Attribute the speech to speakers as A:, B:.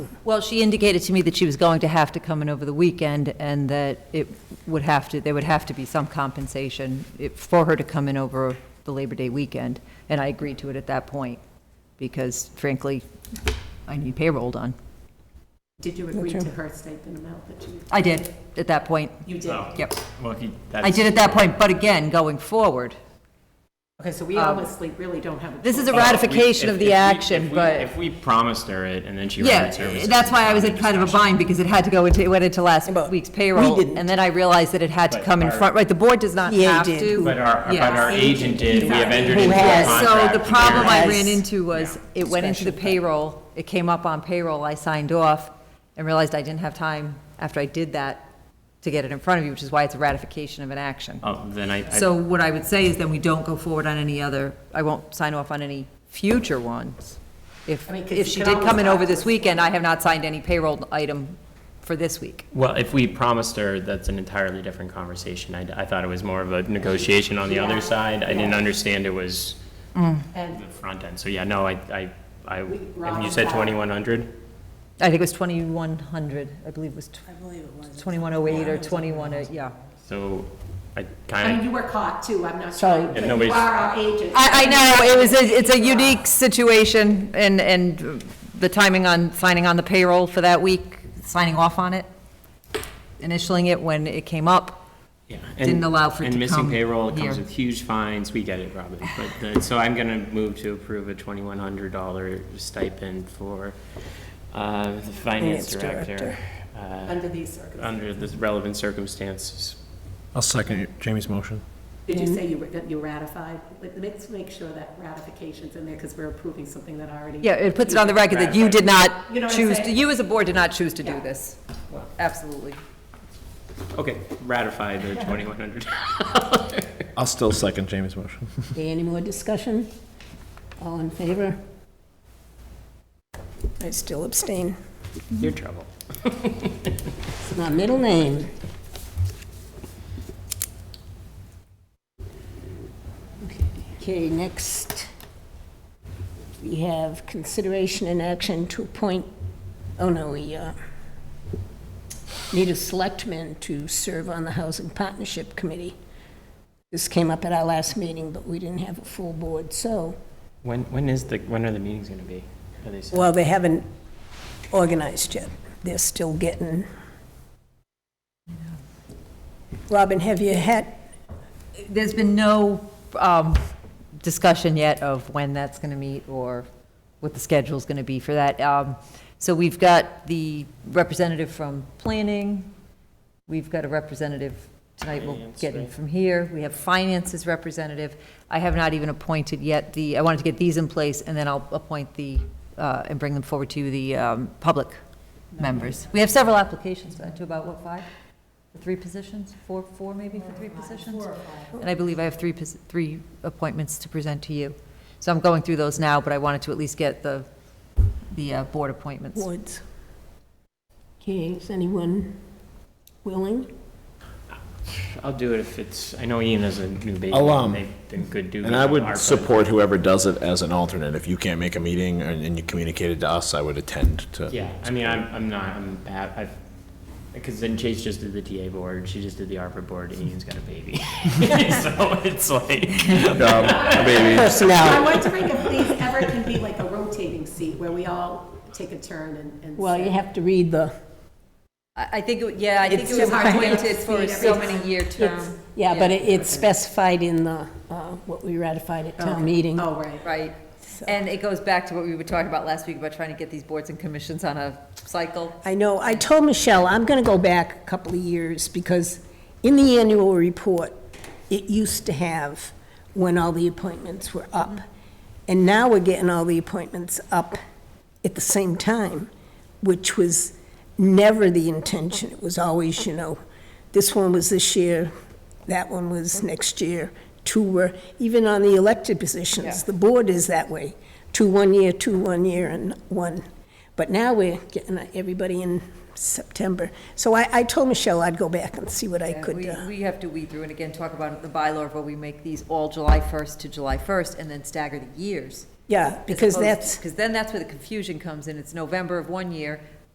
A: Well, she indicated to me that she was going to have to come in over the weekend and that it would have to, there would have to be some compensation it- for her to come in over the Labor Day weekend. And I agreed to it at that point because frankly, I need payroll done.
B: Did you agree to her stipend amount that you,
A: I did at that point.
B: you did?
C: Oh.
A: Yep.
C: Well, he, that's.
A: I did at that point, but again, going forward,
B: Okay, so we
A: Um,
B: obviously really don't have a.
A: this is
B: choice.
A: a ratification
C: If-
A: of
C: if we-
A: the action,
C: if we-
A: but.
C: If we promised her it and then she rendered
A: Yeah,
C: services.
A: that's why I was in kind of a bind, because it had to go into, it went into last
D: But
A: week's
D: we
A: payroll.
D: didn't.
A: And then I realized that it had to
C: But
A: come in
C: our-
A: front, right, the board does not
D: Yeah, it
A: have
D: did.
A: to.
C: But our, but
A: Yeah.
C: our agent did, we have entered
D: Who
C: into a
D: has-
C: contract.
A: So the
C: with
A: problem I
D: Yes.
A: ran into was, it went into the
D: Special.
A: payroll, it came up on payroll, I signed off, and realized I didn't have time after I did that to get it in front of you, which is why it's a ratification of an action.
C: Oh, Then I, I-
A: So what I would say is then we don't go forward on any other, I won't sign off on any future ones. If,
B: I mean, 'cause
A: if
B: you
A: she
B: can
A: did come in
B: always
A: over
B: ask
A: this
B: us.
A: weekend, I have not signed any payroll item for this week.
C: well, if we promised her, that's an entirely different conversation. I, I thought it was more of a negotiation on the
B: Yeah.
C: other side. I didn't understand it was the
B: And
C: front end. So yeah, no, I, I, I,
B: We-
C: and
B: Rob,
C: you said
B: Rob.
C: twenty-one hundred?
A: I think it was 2,100, I believe it was
D: I believe it was.
A: 2108 or 21, uh, yeah.
C: So I
B: I mean,
C: kind
B: you were caught too, I'm not
D: Sorry.
B: trying, but
C: Yeah,
B: you
C: nobody's-
B: are our agent.
A: I, I know, it was, a- it's a unique situation, and, and the timing on signing on the payroll for that week, signing off on it, initialing it when it came up.
C: of.
A: didn't allow for it to
C: And missing
A: come
C: payroll
A: here.
C: comes with huge fines. We get it, Robin. But, the- so I'm gonna move to approve a twenty-one hundred dollar stipend for, uh, the
D: Finance
C: finance
D: director.
C: director. uh,
B: Under these circumstances.
C: Under the relevant circumstances.
E: I'll second Jamie's motion.
B: Did
A: Mm-hmm.
B: you say you, ra- that you ratified? Let- Let's make sure that ratification's in there because we're approving something that already.
A: Yeah, it puts it on the record that you did not
B: You know what I'm
A: choose, to-
B: saying?
A: you as a board did not choose to do
B: Yeah.
A: this. Absolutely.
C: Okay, ratify the twenty-one hundred.
E: I'll still second Jamie's motion.
D: Okay, any more discussion? All in favor?
F: I still abstain.
C: You're trouble.
D: It's my middle name. Okay, next, we have consideration and action to appoint, oh no, we uh, need a selectman to serve on the Housing Partnership Committee. This came up at our last meeting, but we didn't have a full board, so
C: When, when is the, when are the meetings gonna be? Are they set?
F: Well, they haven't organized yet. They're still getting. Robin, have you had,
A: There's been no um, discussion yet of when that's going to meet or what the schedule's going to be for that. Um, So we've got the representative from planning, we've got a representative, tonight we'll
C: Finance,
A: get in
C: right.
A: from here, we have finances representative. I have not even appointed yet the, I wanted to get these in place, and then I'll appoint the, uh, and bring them forward to the um, public members. We have several applications, uh, to about, what, five? For Three positions? Four, four maybe for three positions? And I believe I have three, pos- three appointments to present to you. So I'm going through those now, but I wanted to at least get the, the uh, board appointments.
F: Woods?
D: okay, is anyone willing?
C: I'll do it if it's, I know Ian is a new baby.
E: I'll, um,
C: They've been good dudes.
E: And I
C: on our
E: would
C: part.
E: support whoever does it as an alternate. If you can't make a meeting and and you communicated to us, I would attend to.
C: Yeah, I mean, I'm, I'm not, I'm bad, I've, because then Chase just did the TA board, she just did the ARPA board, and Ian's got a baby. So it's like,
E: Um, Maybe.
B: I
D: Personnel.
B: was wondering if these ever can be like a rotating seat where we all take a turn and. and
D: Well,
B: sit.
D: you have to read the,
A: I I think, it- yeah, I think
D: It's
A: it was
D: just hard to
A: appointed for
B: speed
A: so
B: every
A: many year term,
D: yeah, but
A: Yeah.
D: it- it's specified in the, uh, what we ratified at town meeting.
B: Oh, right.
A: right? And it goes back to what we were talking about last week about trying to get these boards and commissions on a cycle.
F: I
D: No, I told Michelle, I'm going to go back a couple of years, because in the annual report, it used to have when all the appointments were up. And now we're getting all the appointments up at the same time, which was never the intention. It was always, you know, this one was this year, that one was next year, two were, even on the elected positions, the board is that way. Two one year, two one year, and one. But now we're getting everybody in September. So I, I told Michelle I'd go back and see what I
A: And
D: could,
A: we-
D: uh,
A: We have to weed through and again, talk about the bylaw of where we make these all July 1st to July 1st and then stagger the years.
D: Yeah, because that's,
A: Because then that's where the confusion comes in. It's November of one year